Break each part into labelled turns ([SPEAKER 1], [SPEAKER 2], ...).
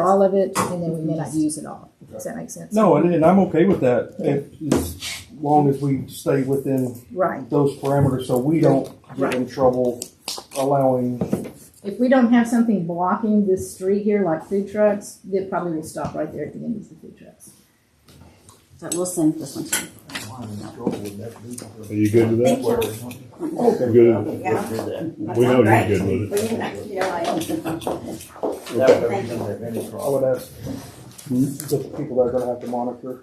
[SPEAKER 1] all of it, and then we may not use it all. Does that make sense?
[SPEAKER 2] No, and, and I'm okay with that, if, as long as we stay within
[SPEAKER 1] Right.
[SPEAKER 2] those parameters, so we don't get in trouble allowing,
[SPEAKER 1] If we don't have something blocking this street here, like food trucks, then probably we'll stop right there at the end of the food trucks.
[SPEAKER 3] But we'll send this one to you.
[SPEAKER 4] Are you good with that? You good with
[SPEAKER 3] Yeah.
[SPEAKER 4] it? We know you're good with it.
[SPEAKER 3] Well, you know, you know, I don't-
[SPEAKER 5] That would reason that any
[SPEAKER 2] I
[SPEAKER 5] problem.
[SPEAKER 2] would ask the people that are gonna have to monitor.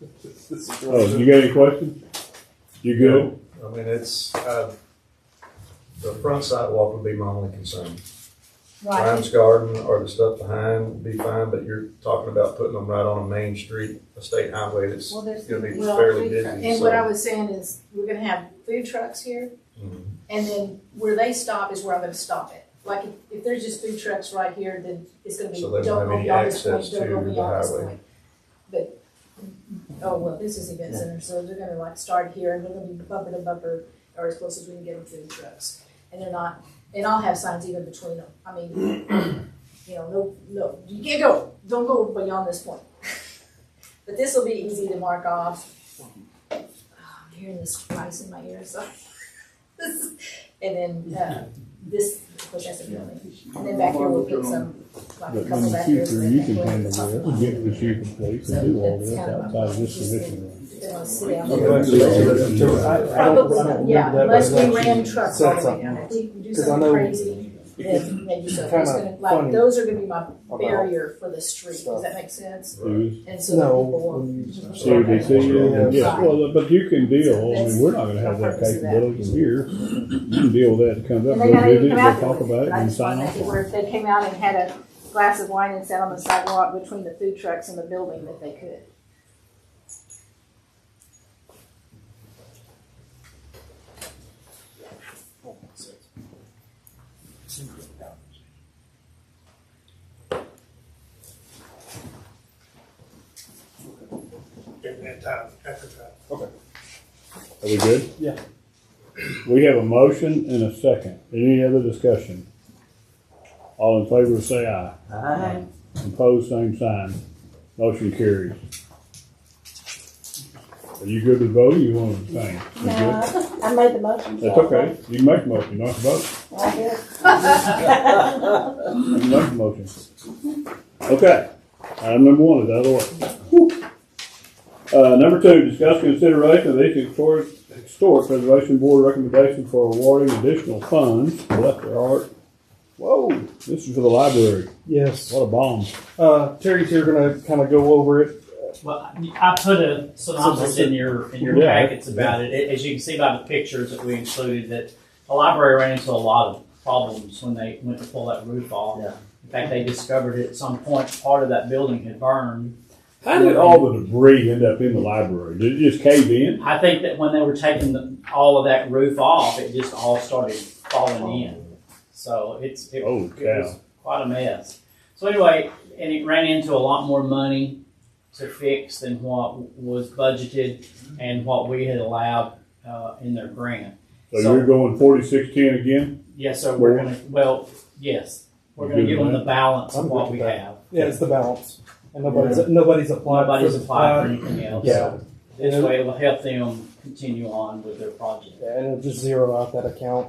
[SPEAKER 2] the
[SPEAKER 4] Oh,
[SPEAKER 2] situation.
[SPEAKER 4] you got any questions? You good?
[SPEAKER 6] I mean, it's, uh, the front sidewalk would be my only concern. Grimes Garden or the stuff behind would be fine, but you're talking about putting them right on a main street, a state highway that's
[SPEAKER 1] Well,
[SPEAKER 6] gonna
[SPEAKER 1] there's-
[SPEAKER 6] be
[SPEAKER 1] well,
[SPEAKER 6] fairly
[SPEAKER 1] food truck-
[SPEAKER 6] busy,
[SPEAKER 1] And what I
[SPEAKER 6] so.
[SPEAKER 1] was saying is, we're gonna have food trucks here,
[SPEAKER 6] Mhm.
[SPEAKER 1] and then where they stop is where I'm gonna stop it. Like, if, if there's just food trucks right here, then it's gonna be,
[SPEAKER 6] So they
[SPEAKER 1] don't
[SPEAKER 6] won't have
[SPEAKER 1] go
[SPEAKER 6] any
[SPEAKER 1] beyond this
[SPEAKER 6] access
[SPEAKER 1] point, don't
[SPEAKER 6] to
[SPEAKER 1] go
[SPEAKER 6] the
[SPEAKER 1] beyond this
[SPEAKER 6] highway.
[SPEAKER 1] point. But, oh, well, this is event center, so they're gonna like start here, and we're gonna be bumper to bumper, or as close as we can get with food trucks. And they're not, and I'll have signs even between them, I mean, you know, no, no, you can't go, don't go beyond this point. But this will be easy to mark off. Oh, I'm hearing this twice in my ear, so. And then, uh, this, of course, that's a building. And then back here, we'll pick some, like a
[SPEAKER 4] But in
[SPEAKER 1] couple
[SPEAKER 4] the
[SPEAKER 1] back here. so
[SPEAKER 4] future,
[SPEAKER 1] that
[SPEAKER 4] you
[SPEAKER 1] back
[SPEAKER 4] can
[SPEAKER 1] here
[SPEAKER 4] handle
[SPEAKER 1] is off
[SPEAKER 4] that,
[SPEAKER 1] the
[SPEAKER 4] and get with you and police and do all this outside of this commission room.
[SPEAKER 1] lot. Then I'll sit down.
[SPEAKER 2] Okay, so I- I don't- I don't remember
[SPEAKER 1] Yeah,
[SPEAKER 2] that, but
[SPEAKER 1] unless
[SPEAKER 2] that
[SPEAKER 1] we ran
[SPEAKER 2] she
[SPEAKER 1] trucks
[SPEAKER 2] said
[SPEAKER 1] all the way
[SPEAKER 2] something.
[SPEAKER 1] down, if we do
[SPEAKER 2] 'Cause I
[SPEAKER 1] something
[SPEAKER 2] know-
[SPEAKER 1] crazy, then maybe so,
[SPEAKER 2] kinda
[SPEAKER 1] it's gonna, like,
[SPEAKER 2] funny
[SPEAKER 1] those are gonna be my
[SPEAKER 2] about
[SPEAKER 1] barrier for the street, does that make sense?
[SPEAKER 4] See
[SPEAKER 1] And so that
[SPEAKER 2] No.
[SPEAKER 1] people won't.
[SPEAKER 2] when you-
[SPEAKER 4] what
[SPEAKER 1] "Oh,
[SPEAKER 4] they see you, and yeah, well, but you can deal, I
[SPEAKER 1] That's-
[SPEAKER 4] mean, we're not gonna have that capability here. You can deal with that, it comes up,
[SPEAKER 1] And
[SPEAKER 4] we'll
[SPEAKER 1] they gotta
[SPEAKER 4] visit,
[SPEAKER 1] even come
[SPEAKER 4] we'll
[SPEAKER 1] out
[SPEAKER 4] talk
[SPEAKER 1] there
[SPEAKER 4] about
[SPEAKER 1] with
[SPEAKER 4] it
[SPEAKER 1] it. I
[SPEAKER 4] and
[SPEAKER 1] just
[SPEAKER 4] sign
[SPEAKER 1] wanted to
[SPEAKER 4] off
[SPEAKER 1] see
[SPEAKER 4] on
[SPEAKER 1] where
[SPEAKER 4] it.
[SPEAKER 1] if they came out and had a glass of wine and sat on the sidewalk between the food trucks and the building that they could.
[SPEAKER 7] during that time, after that.
[SPEAKER 4] Are we good?
[SPEAKER 2] Yeah.
[SPEAKER 4] We have a motion and a second. Any other discussion? All in favor, say aye.
[SPEAKER 5] Aye.
[SPEAKER 4] Opposed, same sign. Motion carries. Are you good with voting? You want to abstain? You good?
[SPEAKER 3] I made the motion.
[SPEAKER 4] That's okay. You can make a motion, not to vote.
[SPEAKER 3] I did.
[SPEAKER 4] You can make a motion. Okay. Item number one is out of the way. Uh, number two, discuss consideration of each historic, historic preservation board recommendation for awarding additional funds. Left or art. Whoa, this is for the library.
[SPEAKER 2] Yes,
[SPEAKER 4] What a bomb.
[SPEAKER 2] uh, Terry's here gonna kinda go over it,
[SPEAKER 8] Well, I I put a synopsis in your, in your
[SPEAKER 4] Yeah.
[SPEAKER 8] packets about it. it. As you can see by the pictures that we included, that the library ran into a lot of problems when they went to pull that roof off.
[SPEAKER 5] Yeah.
[SPEAKER 8] In fact, they discovered at some point, part of that building had burned.
[SPEAKER 4] How did all the debris end up in the library? Did it just cave in?
[SPEAKER 8] I think that when they were taking the, all of that roof off, it just all started falling in. So it's, it
[SPEAKER 4] Oh,
[SPEAKER 8] It was quite a mess. So anyway, and it ran into a lot more money to fix than what was budgeted and what we had allowed uh, in their grant.
[SPEAKER 4] So you're going forty-six ten again?
[SPEAKER 8] Yes, sir. We're gonna. Well, yes, we're gonna give them the balance
[SPEAKER 2] I'm
[SPEAKER 8] of
[SPEAKER 2] good
[SPEAKER 8] what
[SPEAKER 2] with
[SPEAKER 8] we
[SPEAKER 2] that.
[SPEAKER 8] have.
[SPEAKER 2] yeah, it's the balance, and nobody's, nobody's applied. for
[SPEAKER 8] Nobody's
[SPEAKER 2] the-
[SPEAKER 8] applied for anything else.
[SPEAKER 2] Yeah.
[SPEAKER 8] This way, it will help them continue on with their project.
[SPEAKER 2] Yeah, and it'll just zero out that account.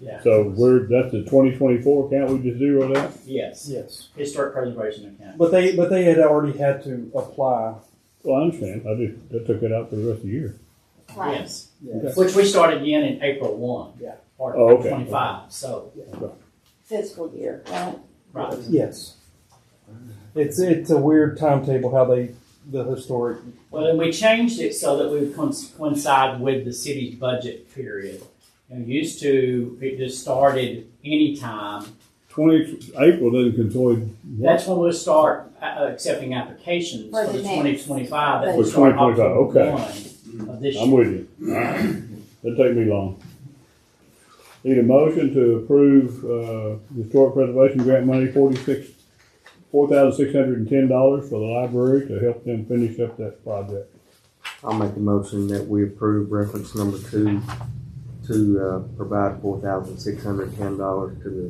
[SPEAKER 8] Yeah.
[SPEAKER 4] So we're, that's the twenty twenty-four account we just zeroed out?
[SPEAKER 8] Yes.
[SPEAKER 2] Yes.
[SPEAKER 8] Historic preservation account.
[SPEAKER 2] But they, but they had already had to apply.
[SPEAKER 4] Well, I understand. I just, I took it out for the rest of the year.
[SPEAKER 8] Yes.
[SPEAKER 2] Yes.
[SPEAKER 8] Which we started again in April one.
[SPEAKER 2] Yeah.
[SPEAKER 8] Or
[SPEAKER 4] Oh, okay.
[SPEAKER 8] twenty-five. So
[SPEAKER 3] Fiscal year, right?
[SPEAKER 8] right.
[SPEAKER 2] Yes. It's, it's a weird timetable how they, the historic,
[SPEAKER 8] Well, and we changed it so that we would coinc- coincide with the city's budget period. You know, used to, it just started anytime.
[SPEAKER 4] Twenty, April doesn't consolidate.
[SPEAKER 8] That's when we'll start uh, accepting applications
[SPEAKER 3] For
[SPEAKER 8] for the
[SPEAKER 3] the next.
[SPEAKER 8] twenty twenty-five. That
[SPEAKER 3] For
[SPEAKER 8] will start
[SPEAKER 4] 2025,
[SPEAKER 8] October
[SPEAKER 4] okay.
[SPEAKER 8] one of this
[SPEAKER 4] I'm
[SPEAKER 8] year.
[SPEAKER 4] with you. Doesn't take me long. Need a motion to approve, uh, historic preservation grant money forty-six, four thousand six hundred and ten dollars for the library to help them finish up that project.
[SPEAKER 9] I'll make a motion that we approve reference number two
[SPEAKER 7] to uh, provide four thousand six hundred ten dollars to the